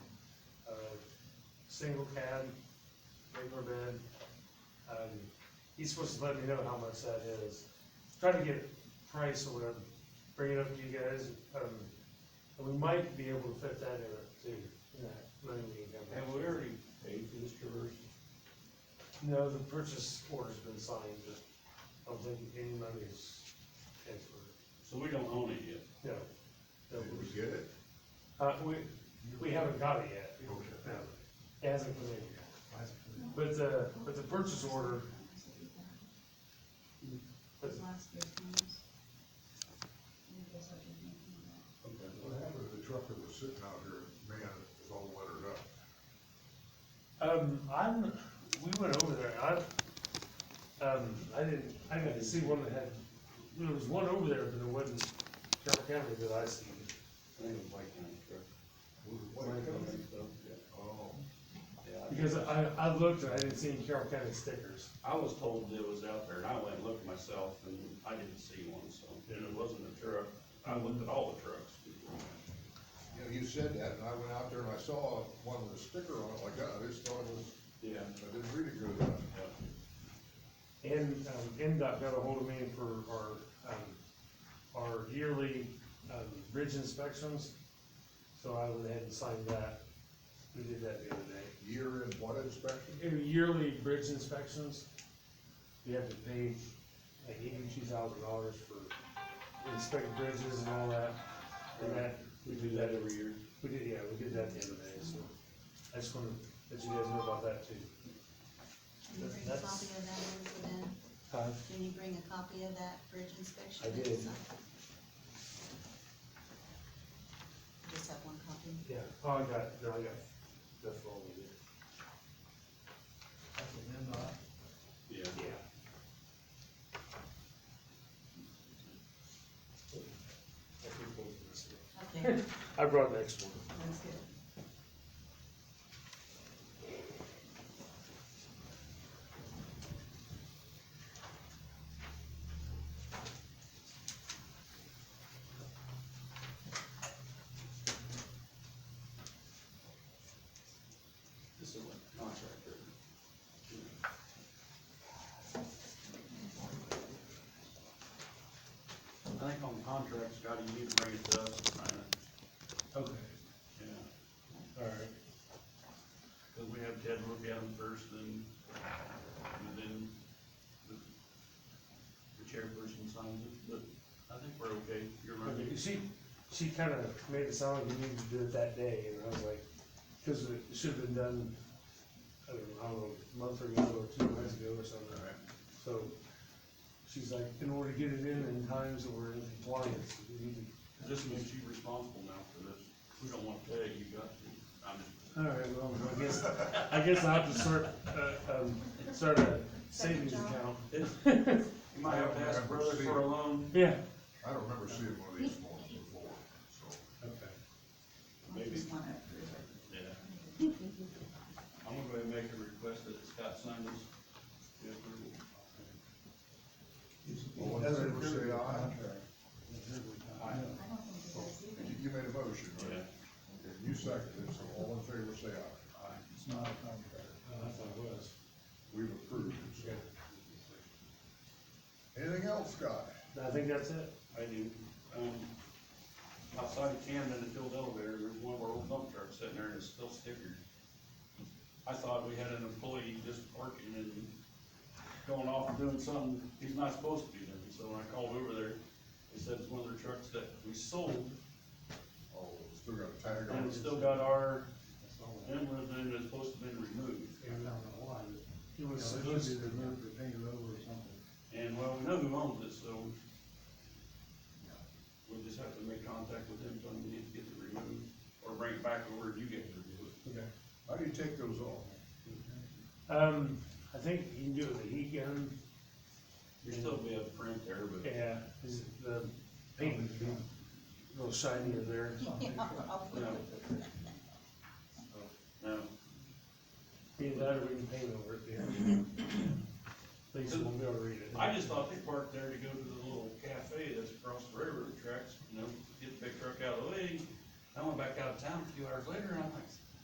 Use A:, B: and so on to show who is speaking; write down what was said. A: uh, single cab, regular bed. Um, he's supposed to let me know how much that is. Try to get price or whatever, bring it up to you guys, um, and we might be able to fit that in it too, in that money we have.
B: Have we already paid for this traverse?
A: No, the purchase order's been signed, but I don't think any money is transferred.
B: So we don't own it yet.
A: No. No,
C: It was
A: we-
C: good.
A: Uh, we, we haven't got it yet. No, It hasn't come in yet. But the, but the purchase order, but
C: What happened to the truck that was sitting out here, man, it was all lettered up?
A: Um, I'm, we went over there, I, um, I didn't, I got to see one that had, there was one over there, but it wasn't Carroll County that I seen.
B: I think it was White County truck.
C: Was it white company?
B: Yeah.
C: Oh,
B: Yeah,
A: Because I, I looked and I didn't see any Carroll County stickers.
B: I I was told that it was out there, and I went and looked myself, and I didn't see one, so, and it wasn't a truck. I looked at all the trucks.
C: you know, you said that, and I went out there and I saw one with a sticker on it like that, I just thought it was,
B: Yeah.
C: I didn't read it good enough.
A: And, um, MDOT got ahold of me for our, um, our yearly, um, bridge inspections. So I went ahead and signed that. We did that the other day.
C: Year in what inspection?
A: Every yearly bridge inspections, you have to pay like eighty-two thousand dollars for inspect bridges and all that. And that,
B: We do that every year.
A: we did, yeah, we did that the other day, so I just wanted to let you guys know about that too.
D: Can you bring a copy of that incident? Can you bring a copy of that bridge inspection?
A: I
D: that
A: did.
D: you signed? Just have one copy?
A: Yeah, oh, I got, no, I got, that's all we did.
B: Yeah.
A: Yeah. I think both of us did.
D: Okay,
A: I brought an extra one.
D: that's good.
B: This is like contractor. I think on contracts, Scotty, you need to bring it to us, and sign it.
A: Okay,
B: yeah.
A: all right.
B: Cause we have Ted look at them first, then, and then the, the chairperson signs it, but I think we're okay, you're right.
A: Okay, She, she kind of made it sound like you needed to do it that day, and I was like, because it should have been done, I don't know, I don't know, a month ago or two months ago or something.
B: Alright.
A: So, she's like, in order to get it in in times that we're in compliance, we need to.
B: This makes you responsible now for this, we don't want to tell you, you got to, I'm just,
A: All right, well, I guess, I guess I have to start, uh, um, start a savings
D: Second job.
A: account.
B: you might have to ask brother for a loan.
A: Yeah.
C: I don't remember seeing one of these ones before, so.
A: Okay.
D: I
B: Maybe.
D: just want to approve it.
B: Yeah. I'm gonna go ahead and make a request that Scott sign this. Yeah, approval.
C: All in favor, say aye.
D: I don't think it does either.
C: You, you made a motion, right?
B: Yeah.
C: Okay, you seconded it, so all in favor, say aye.
E: It's not a contract.
A: I thought it was.
C: We've approved it, so. Anything else, Scott?
A: I think that's it.
B: I do. Um, outside of Camden, the field elevator, there's one of our old dump trucks sitting there and it's still stickered. I thought we had an employee just parking and going off and doing something, he's not supposed to be there. So when I called over there, they said it's one of their trucks that we sold
C: Oh, still got a tag on
B: and
C: it.
B: it's still got our
E: That's all.
B: emblem and it's supposed to have been removed.
E: I don't know why, but,
A: It
E: you know,
A: was
E: it
A: supposed
E: should be
A: to.
E: removed or painted over or something.
B: And well, we know who owns it, so we'll just have to make contact with him, tell him we need to get it removed or bring it back over and you get to remove it.
A: Okay.
C: How do you take those off?
A: Um, I think you can do it with a heat gun.
B: There'd still be a print there, but
A: Yeah, is it uh, the paint would be a little shinier there.
D: Yeah, probably.
B: no. No,
A: Either that or we can paint over it, yeah. At least we'll be able to read it.
B: Mm-hmm. I just thought they parked there to go to the little cafe that's across the railroad tracks, you know, get the big truck out of the way. I went back out of town a few hours later and I'm like,